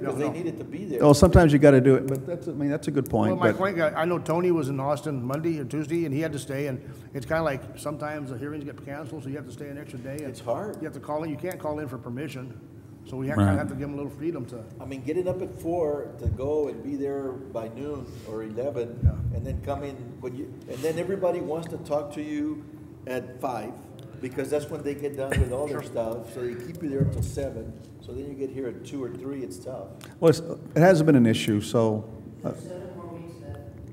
because they no. needed to be there. Oh, sometimes you got to do it, but that's, I mean, that's a good Well, point. my but- point, uh, I I know Tony was in Austin Monday or Tuesday, and he had to stay, and it's kind of like, sometimes the hearings get canceled, so you have to stay an extra day. and It's hard. You have to call in, you can't call in for permission, so we kind of have to give them a little freedom to, I mean, getting up at four to go and be there by noon or eleven, and then come in when you, and then everybody wants to talk to you at five, because that's when they get done with all their stuff, so they keep you there until seven, so then you get here at two or three, it's tough. Well, it's- it hasn't been an issue, so, uh,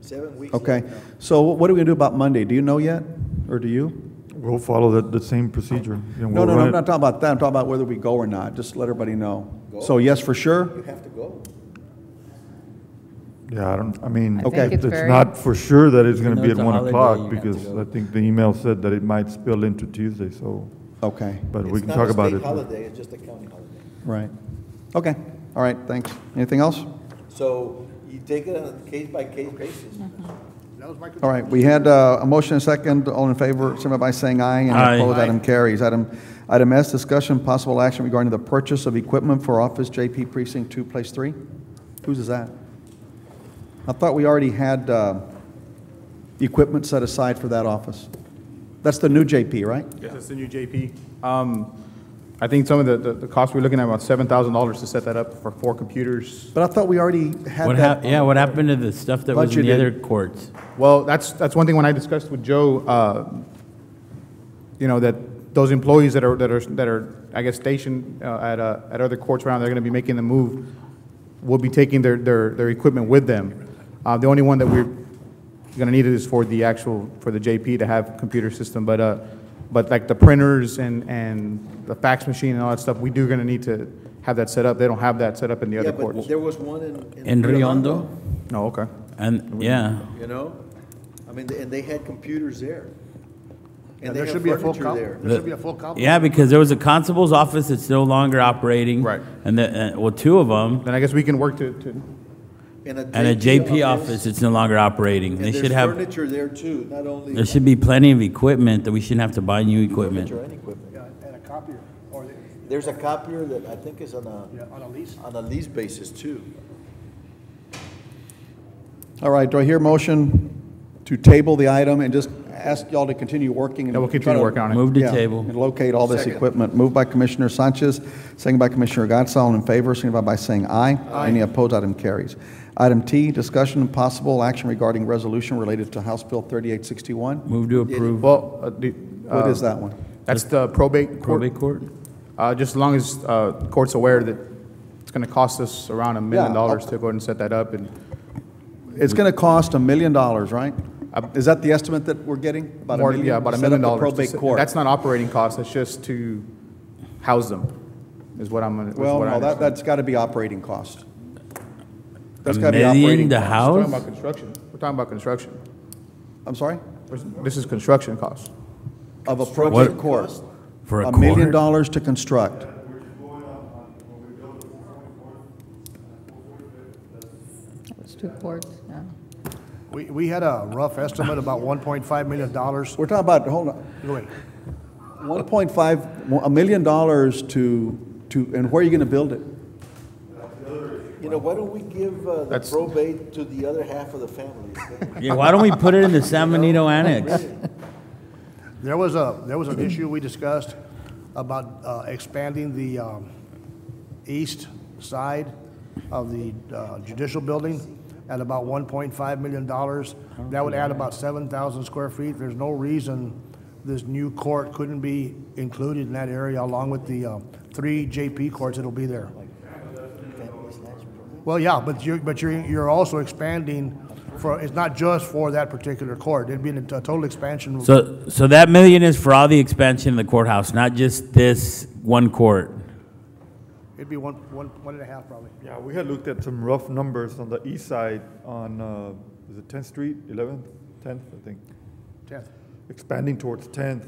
Seven weeks. okay. later. So what are we going to do about Monday? Do you know yet, or do you? We'll follow the, the same procedure. You know, No, we'll no, run no, I'm it- not talking about that, I'm talking about whether we go or not, just let everybody know. Go. So yes, for You sure? have to go. Yeah, I don't, I mean, I Okay. think it's it's very, not for sure that it's gonna No, be at it's a one holiday, you o'clock, have to because go. I think the email said that it might spill into Tuesday, so, Okay, but we It's can not talk a about state it. Holiday, it's just a county holiday. right. Okay, all right, thanks. Anything else? So you take it on a case by case basis. that was my. All right, we had uh, a motion and a second, all in favor, signify by saying aye. and Aye. Opposed, Aye. item carries. Item, item S, discussion, possible action regarding the purchase of equipment for Office JP Precinct 2, Place 3. Whose is that? I thought we already had uh, equipment set aside for that office. That's the new JP, right? Yes, that's the new JP. Um, I think some of the, the- the cost, we're looking at about seven thousand dollars to set that up for four computers. But I thought we already had What hap, that. yeah, what happened to the stuff that was in the Budgeted. other courts? Well, that's, that's one thing when I discussed with Joe, uh, you know, that those employees that are, that are, that are, I guess, stationed uh, at, uh, at other courts around, they're gonna be making the move, will be taking their, their, their equipment with them. Uh, the only one that we're gonna need it is for the actual, for the JP to have computer system, but, uh, but like the printers and, and the fax machine and all that stuff, we do gonna need to have that set up. They don't have that set up in the Yeah, other but courts. there was one in. In Riondo? Oh, okay. And, yeah, You know, I mean, and they had computers there. Yeah, And there they should had be a full furniture comp, there. there should be a full comp. yeah, because there was a constable's office that's no longer operating. Right. And the, uh, well, two of them, Then I guess we can work to, to, and a JP office that's no longer operating. They And should there's have, furniture there too, not only. there should be plenty of equipment that we shouldn't have to buy new equipment. Furniture and equipment. Yeah, And a copier, or, the- There's a copier that I think is on a, yeah, on a lease. on a lease basis too. All right, do I hear a motion to table the item and just ask y'all to continue working? and yeah, we'll try continue to- working on it. Move to Yeah, table. And locate all this Second. equipment. Moved by Commissioner Sanchez, second by Commissioner Gatz. All in favor, signify by saying aye. Any opposed, item carries. Item T, discussion and possible action regarding resolution related to House Bill 3861. Move to approve Well, uh, the. What uh, is that one? That's the probate court. probate court? Uh, Just as long as uh, court's aware that it's going to cost us around a Yeah, million I'll- dollars to go ahead and set that up, and It's going to cost a million dollars, right? Uh, Is that the estimate that we're getting? About a more, million? yeah, about a Set million up the dollars. to probate set- court. That's not operating costs, that's just to house them, is what I'm, gonna- is Well, what I no, that, understand. that's got to be operating cost. That's A got to be million operating. to cost. We're talking house? about construction, we're talking about construction. I'm sorry? This is construction costs. Of a probate What? court. For a A million court? dollars to construct. it's two courts, yeah. We, we had a rough estimate, about one point five million dollars. We're talking about, hold on. Go ahead. 1.5, a million dollars to, to, and where are you going to build it? You know, why don't we give uh, the That's- probate to the other half of the family? Yeah, why don't we put it in the San Benito Annex? There was a, there was an issue we discussed about uh, expanding the um, east side of the uh, judicial building at about $1.5 million. That would add about 7,000 square feet. There's no reason this new court couldn't be included in that area along with the uh, three JP courts that'll be there. Well, yeah, but you're, but you're, you're also expanding for, it's not just for that particular court. It'd be a total expansion. So, so that million is for all the expansion of the courthouse, not just this one court. It'd be one, one, one and a half probably. Yeah, we had looked at some rough numbers on the east side on, uh, is it Tenth Street, Eleventh, Tenth, I think, Tenth. expanding towards Tenth.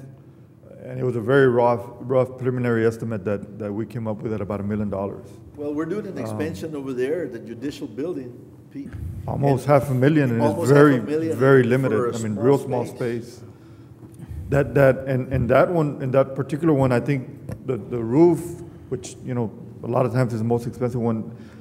And it was a very rough, rough preliminary estimate that, that we came up with at about a million dollars. Well, we're doing an Um, expansion over there, the judicial building, Pete. Almost half a million, and Almost it's half a very, million very for limited. a I mean, small real small space. space. That, that, and, and that one, and that particular one, I think the, the roof, which, you know, a lot of times is the most expensive one,